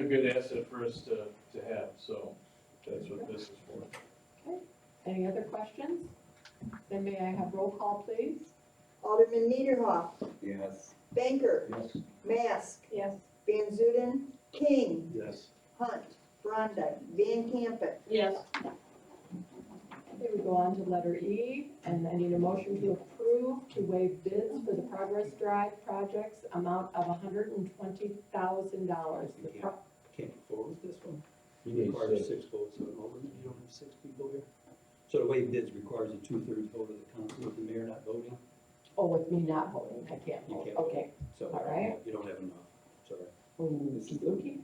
good asset for us to, to have, so that's what this is for. Any other questions? Then may I have roll call, please? Alderman Niederhoff, Yes. Banker, Yes. Mask, Yes. Van Zuiden, King, Yes. Hunt, Brondike, Van Campen. Yes. Okay, we go on to letter E, and I need a motion to approve to waive bids for the Progress Drive projects amount of hundred and twenty thousand dollars. Can't you forward this one? You need six. Requires six votes of an alderman, you don't have six people here. So the way bids requires a two-thirds vote of the council, with the mayor not voting, Oh, with me not voting, I can't You vote, can't vote. okay. so. All right. You don't have enough, sorry. Okey-dokey.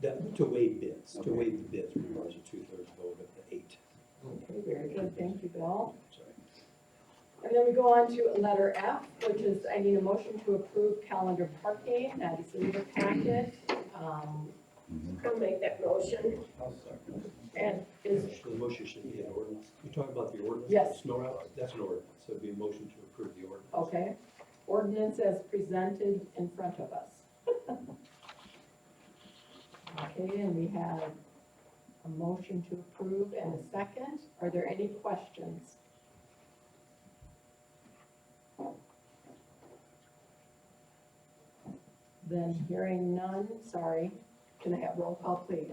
That, to waive bids, to Okay. waive the bids requires a two-thirds vote of the eight, Okay, very good, thank you, Bill. sorry. And then we go on to letter F, which is, I need a motion to approve calendar parking, that is in your packet. Um, Mm-hmm. I'll make that motion. And is, The motion should be an ordinance, you talk about the ordinance? Yes. Snow out, that's an ordinance, so it'd be a motion to approve the ordinance. okay, ordinance as presented in front of us. Okay, and we have a motion to approve and a second. Are there any questions? Then hearing none, sorry. Can I have roll call, please?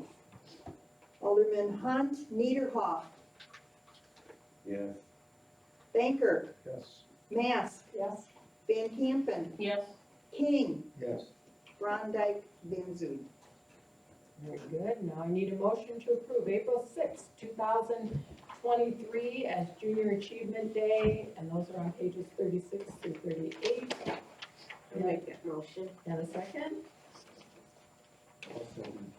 Alderman Hunt, Niederhoff, Yes. Banker, Yes. Mask, Yes. Van Campen, Yes. King, Yes. Brondike, Van Zuiden. Very good. Now I need a motion to approve April sixth, two thousand twenty-three as Junior Achievement Day, and those are on pages thirty-six through thirty-eight. I'll make that motion. And a second,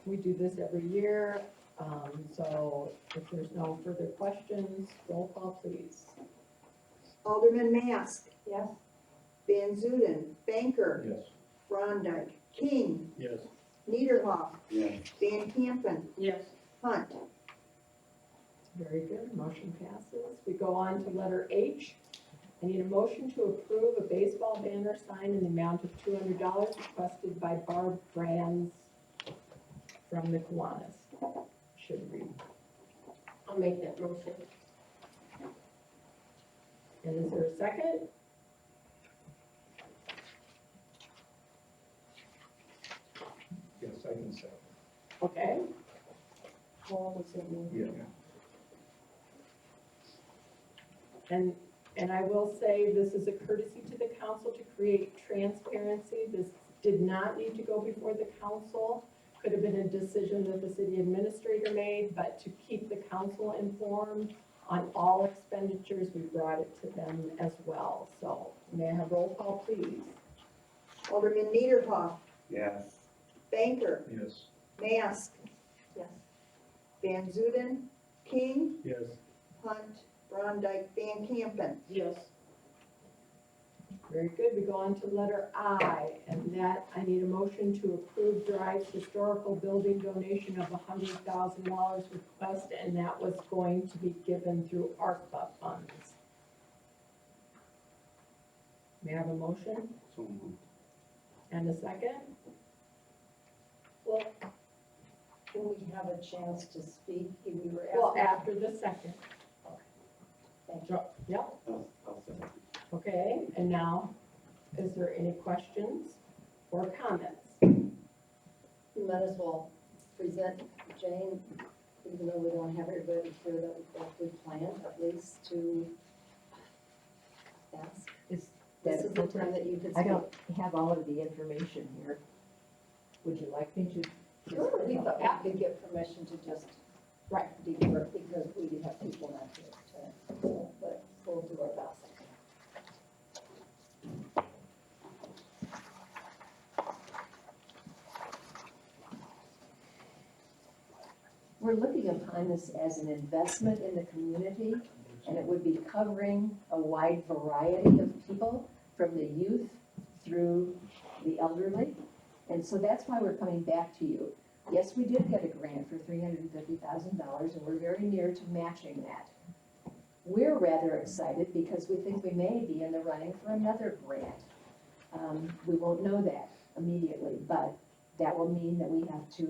we do this every year, um, so if there's no further questions, roll call please. Alderman Mask, Yes. Van Zuiden, Banker, Yes. Brondike, King, Yes. Niederhoff, Yes. Van Campen, Yes. Hunt. Very good, motion passes. We go on to letter H. I need a motion to approve a baseball banner sign in the amount of two hundred dollars requested by Barb Brands from the Kiwanis. Should read. I'll make that motion. And is there a second? Yes, I can say. Okay. Yeah. And, and I will say, this is a courtesy to the council to create transparency. This did not need to go before the council. Could have been a decision that the city administrator made, but to keep the council informed on all expenditures, we brought it to them as well. So may I have roll call, please? Alderman Niederhoff, Yes. Banker, Yes. Mask, Yes. Van Zuiden, King, Yes. Hunt, Brondike, Van Campen. Yes. Very good, we go on to letter I, and that, I need a motion to approve Drive's historical building donation of hundred thousand dollars request, and that was going to be given through ARPA funds. May I have a motion So moved. and a second? Well, can we have a chance to speak? We were Well, asking. after the second. Thank Yep, I'll, I'll second. okay, and now, is there any questions or comments? We might as well present Jane, even though we don't have it ready for the adopted plan, at least to ask. Is This that is the time that you could I speak. don't have all of the information here. Would you like me to? Sure, we thought we could get permission to just. Right. Defer, because we do have people not here to, so, but we'll do our best. We're looking upon this as an investment in the community, and it would be covering a wide variety of people, from the youth through the elderly. And so that's why we're coming back to you. Yes, we did get a grant for three hundred and fifty thousand dollars, and we're very near to matching that. We're rather excited because we think we may be in the running for another grant. Um, we won't know that immediately, but that will mean that we have to